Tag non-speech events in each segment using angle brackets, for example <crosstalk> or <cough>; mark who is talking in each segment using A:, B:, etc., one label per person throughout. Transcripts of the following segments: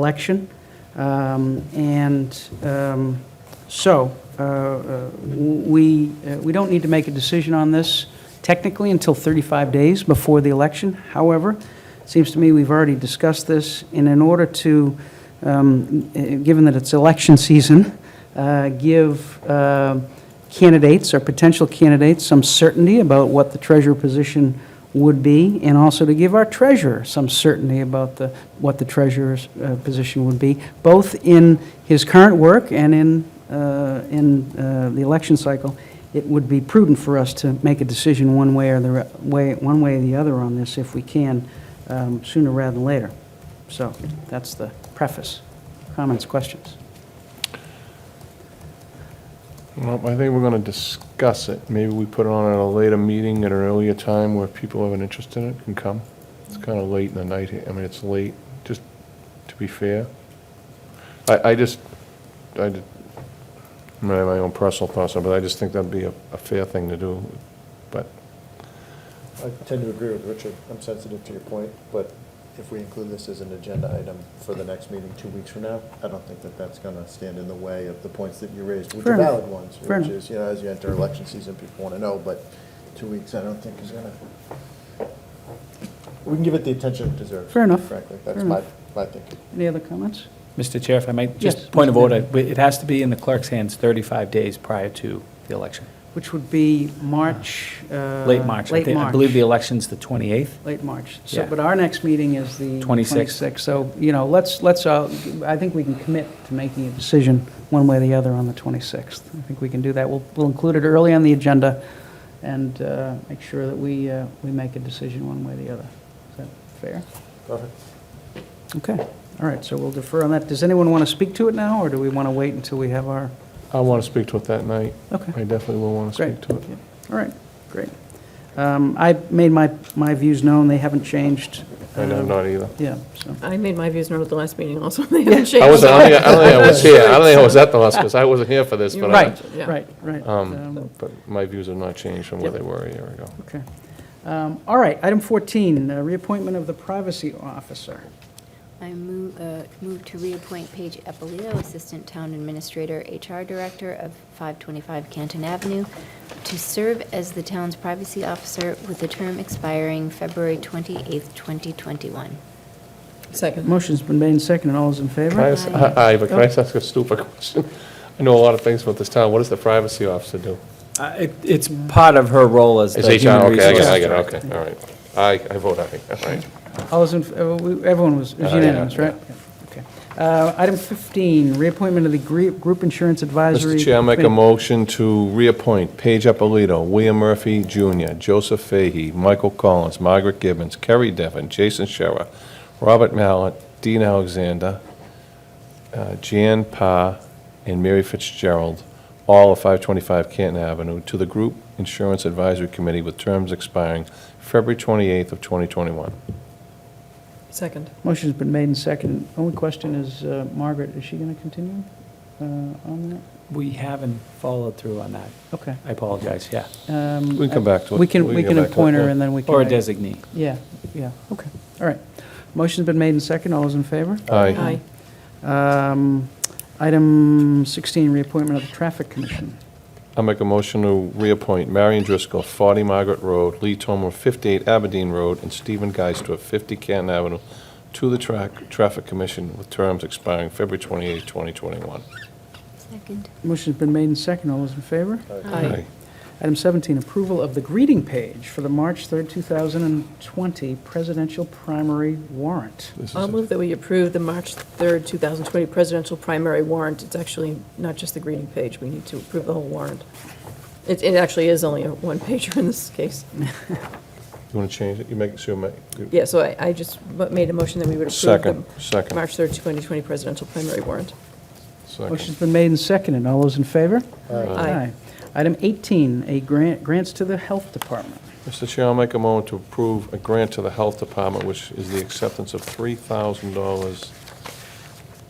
A: election. Um, And um, so, uh, uh, we, uh, we don't need to make a decision on this technically until 35 days before the election. However, it seems to me we've already discussed this, and in order to, um, uh, given that it's election season, uh, give um, candidates or potential candidates some certainty about what the treasurer position would be, and also to give our treasurer some certainty about the, what the treasurer's uh, position would be, both in his current work and in, uh, in uh, the election cycle. It would be prudent for us to make a decision one way or the, re- way, one way or the other on this if we can, um, sooner rather than later. So that's the preface. Comments, questions?
B: Well, I think we're going to discuss it. Maybe we put it on at a later meeting at an earlier time where people have an interest in it can come. It's kind of late in the night here. I mean, it's late, just to be fair. I, I just, I did, I mean, I have my own personal thoughts, on it, but I just think that'd be a, a fair thing to do. But
C: I tend to agree with Richard. I'm sensitive to your point, but if we include this as an agenda item for the next meeting two weeks from now, I don't think that that's going to stand in the way of the points that you raised, which
A: Fair
C: are
A: enough.
C: valid ones,
A: Fair
C: which
A: enough.
C: is, you know, as you enter election season, people want to know, but two weeks, I don't think is going to, we can give it the attention it deserves.
A: Fair enough.
C: Frankly, that's
A: Fair
C: my,
A: enough.
C: my thinking.
A: Any other comments?
D: Mr. Chair, if I might,
A: Yes,
D: just point of
A: Mr.
D: order, we- it has to be in the clerk's hands 35 days prior to the election,
A: Which would be March. uh,
D: late March. I
A: Late
D: thi-
A: March.
D: I believe the election's the 28th.
A: Late March. So,
D: Yeah.
A: but our next meeting is the
D: 26th.
A: 26th. So, you know, let's, let's, uh, I think we can commit to making a decision one way or the other on the 26th. I think we can do that. We'll, we'll include it early on the agenda and uh, make sure that we, uh, we make a decision one way or the other. Is that fair?
C: Perfect.
A: Okay. All right, so we'll defer on that. Does anyone want to speak to it now, or do we want to wait until we have our,
B: I want to speak to it that night.
A: okay?
B: I definitely will want to
A: Great.
B: speak to it.
A: All right, great. Um, I made my, my views known, they haven't changed.
B: I know,
A: Um,
B: not either.
A: Yeah, so,
E: I made my views known at the last meeting also, <laughs> they haven't changed.
B: I wasn't, I don't think I don't think
A: <laughs>
B: I was here. I don't think I was at the last, because I wasn't here for this,
E: You
B: but
E: were
B: I,
A: right,
E: Right, yeah.
A: right, right.
B: Um,
A: Um,
B: but my views have not changed from where
A: Yep.
B: they were a year ago.
A: Okay. Um, All right, item 14, uh, reappointment of the privacy officer.
F: I move, uh, move to reappoint Paige Eppolito, Assistant Town Administrator, HR Director of 525 Canton Avenue, to serve as the town's privacy officer with a term expiring February 28th, 2021.
E: Second.
A: Motion's been made and seconded, all those in favor?
B: Can I ask,
F: Right.
B: aye, but can I just ask a stupid <laughs> question? I know a lot of things about this town. What does the privacy officer do?
D: Uh, it- It's part of her role as
B: Is
D: the
B: HR, okay, I
D: human
B: get it, I
D: resources.
B: get it, okay, all right. I, I vote aye, all right.
A: All those in, uh, we- everyone was it was
B: Uh, yeah,
A: unanimous, right? Okay. Uh, Item 15, reappointment of the gre- Group Insurance Advisory.
B: Mr. Chair, I'll make a
A: Committee.
B: motion to reappoint Paige Appolito, William Murphy Jr., Joseph Fahey, Michael Collins, Margaret Gibbons, Kerry Devon, Jason Scherer, Robert Mallett, Dean Alexander, uh, Jan Pa, and Mary Fitzgerald, all of 525 Canton Avenue, to the Group Insurance Advisory Committee with terms expiring February 28th of 2021.
E: Second.
A: Motion's been made and seconded. Only question is, uh, Margaret, is she going to continue uh, on
D: We haven't followed through on that.
A: that? Okay.
D: I apologize, yeah.
A: Um,
B: We can come back to it.
A: We can, we
B: go
A: can
B: back to it,
A: appoint her
B: yeah.
A: and then we can.
D: Or a
A: make-
D: designee.
A: Yeah, yeah, okay, all right. Motion's been made and seconded, all those in favor?
B: Aye.
E: Aye.
A: Um, Item 16, reappointment of the Traffic Commission.
B: I'll make a motion to reappoint Marion Driscoll, 40 Margaret Road, Lee Tomer, 58 Aberdeen Road, and Stephen Geister, 50 Canton Avenue, to the Trac- Traffic Commission with terms expiring February 28, 2021.
F: Second.
A: Motion's been made and seconded, all those in favor?
B: Uh.
E: Aye.
A: Item 17, approval of the greeting page for the March 3rd, 2020 presidential primary warrant.
B: This is
E: I'll
B: it.
E: move that we approve the March 3rd, 2020 presidential primary warrant. It's actually not just the greeting page, we need to approve the whole warrant. It, it actually is only a one-pager in
B: <laughs>
E: this case.
B: You want to change it? You make, so you make. you-
E: Yeah, so I, I just ma- made a motion that we would approve
B: Second,
E: the
B: second,
E: March 3rd, 2020 presidential primary warrant.
B: second.
A: Motion's been made and seconded, all those in favor?
E: Aye.
A: Item 18, a grant, grants to the Health Department.
B: Mr. Chair, I'll make a motion to approve a grant to the Health Department, which is the acceptance of $3,000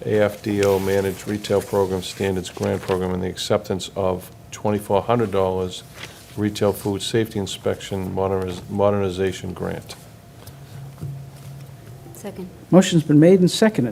B: AFDO Managed Retail Program Standards Grant Program and the acceptance of $2,400 Retail Food Safety Inspection Moderniz- Modernization Grant.
F: Second.
A: Motion's been made and seconded.